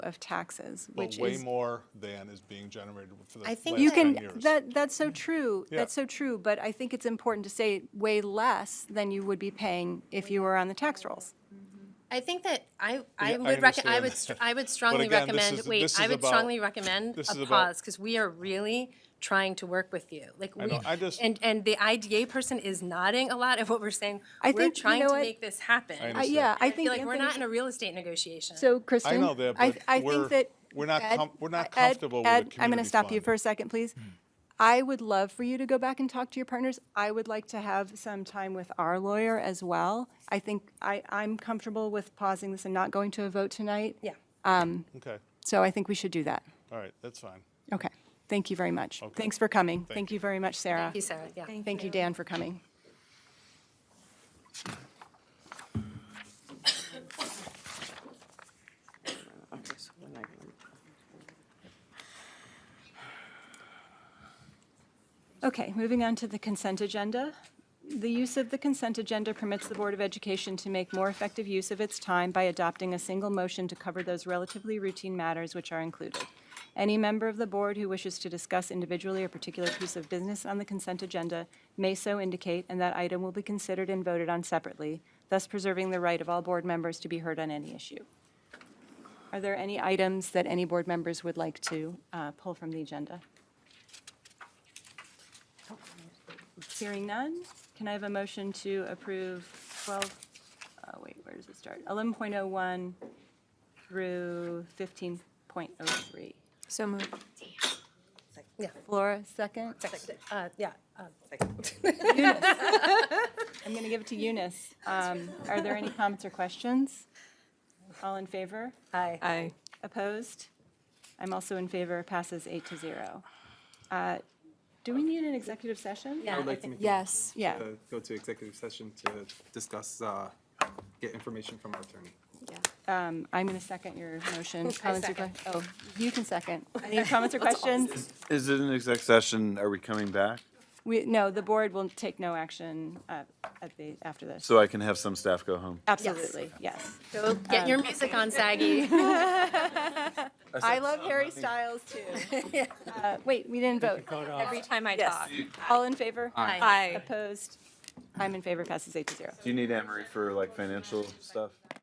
of taxes, But which way is. more than is being generated for the I last think you ten can, years. that, that's so true, Yeah. that's so true, but I think it's important to say way less than you would be paying if you were on the tax rolls. I think that I, I Yeah, I would rec- I would, understand str- that. I would But strongly again, this recommend, is- wait, this I is would about- strongly recommend this is a about- pause, because we are really trying to work with you. Like, we, know, I just- and, and the IDA person is nodding a lot of what we're saying. I We're think, you trying know to what? make this happen. I I- understand. Yeah, I I feel think like we're not in Anthony, a real estate negotiation. so Kristen. I know that, I- I but think we're, that- we're not, Ed, com- we're not Ed, comfortable with Ed, the community I'm going to stop you fund. for a second, Hmm. please. I would love for you to go back and talk to your partners. I would like to have some time with our lawyer as well. I think I, I'm comfortable with pausing this and not going to a vote tonight. Yeah. Okay, So I think we should do that. all right, that's fine. Okay. Thank you very much. Thanks for coming. Thank you very much, Sarah. Thank you, Sarah, yeah. Thank you, Dan, for coming. Okay, so when I come- Okay, moving on to the consent agenda. The use of the consent agenda permits the Board of Education to make more effective use of its time by adopting a single motion to cover those relatively routine matters which are included. Any member of the board who wishes to discuss individually a particular piece of business on the consent agenda may so indicate, and that item will be considered and voted on separately, thus preserving the right of all board members to be heard on any issue. Are there any items that any board members would like to uh, pull from the agenda? Hearing none, can I have a motion to approve 12, oh wait, where does it start? 11.01 through 15.03. So moved. Flora, second? Uh, yeah, uh, I'm going to give it to Eunice. Um, Are there any comments or questions? All in favor? hi. Aye. Opposed? I'm also in favor, passes eight to zero. Uh, Do we need an executive session? Yeah, I would I like to think- make. a Yes. Yeah. motion to Go to executive session to discuss, uh, get information from our attorney. Um, I'm going to second your motion. Comments or second. que- Oh, you can second. Any comments or questions? Is it an exec session? Are we coming back? We, no, the board will take no action uh, at the, after this. So I can have some staff go home? Absolutely, yes. Go get uh, your music on, Saggy. I love Harry Styles, too. Uh, Wait, we didn't vote. Every time I talk. All in favor? Aye. Aye. Opposed? I'm in favor, passes eight to zero. Do you need Emery for like financial stuff?